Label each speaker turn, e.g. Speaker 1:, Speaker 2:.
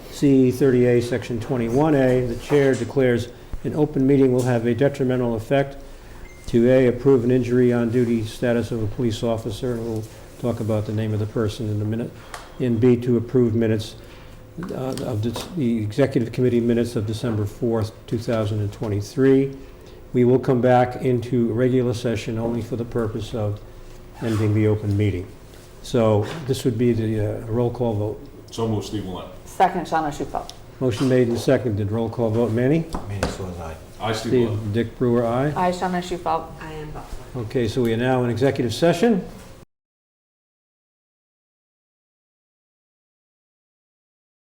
Speaker 1: C 30A, Section 21A, the chair declares an open meeting will have a detrimental effect to A, approve an injury on duty status of a police officer, and we'll talk about the name of the person in a minute, and B, to approve minutes uh, of the- the executive committee minutes of December 4th, 2023. We will come back into regular session only for the purpose of ending the open meeting. So this would be the uh, roll call vote.
Speaker 2: So move, Steve Millet.
Speaker 3: Second, Shawna Schufel.
Speaker 1: Motion made and seconded, roll call vote, Manny?
Speaker 4: Manny Swan, aye.
Speaker 2: I, Steve Millet.
Speaker 1: Steve, Dick Brewer, aye.
Speaker 3: I, Shawna Schufel. I am Buckland.
Speaker 1: Okay, so we are now in executive session.